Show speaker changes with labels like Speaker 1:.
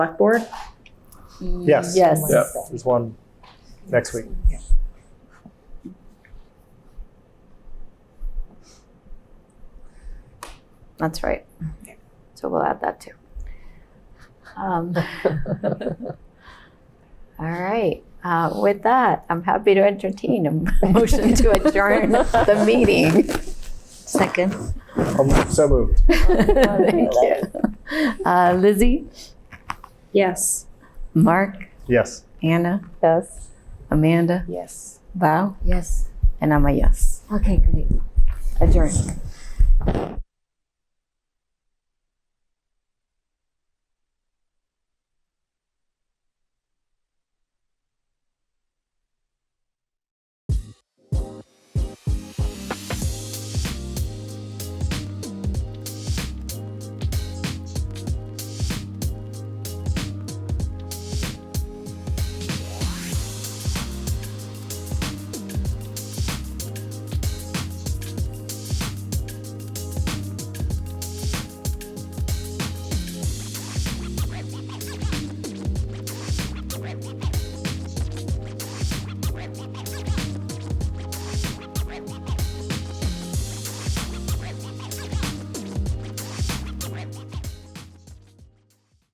Speaker 1: select board?
Speaker 2: Yes.
Speaker 3: Yes.
Speaker 4: Yeah.
Speaker 2: There's one next week.
Speaker 3: That's right. So we'll add that too. Um, all right. Uh, with that, I'm happy to entertain a motion to adjourn the meeting.
Speaker 5: Second.
Speaker 2: I'm so moved.
Speaker 3: Thank you. Uh, Lizzie,
Speaker 1: Yes.
Speaker 3: Mark,
Speaker 2: Yes.
Speaker 3: Anna,
Speaker 5: Yes.
Speaker 3: Amanda,
Speaker 1: Yes.
Speaker 3: Val,
Speaker 5: Yes.
Speaker 3: and I'm a yes.
Speaker 5: Okay, great.
Speaker 3: Adjourn.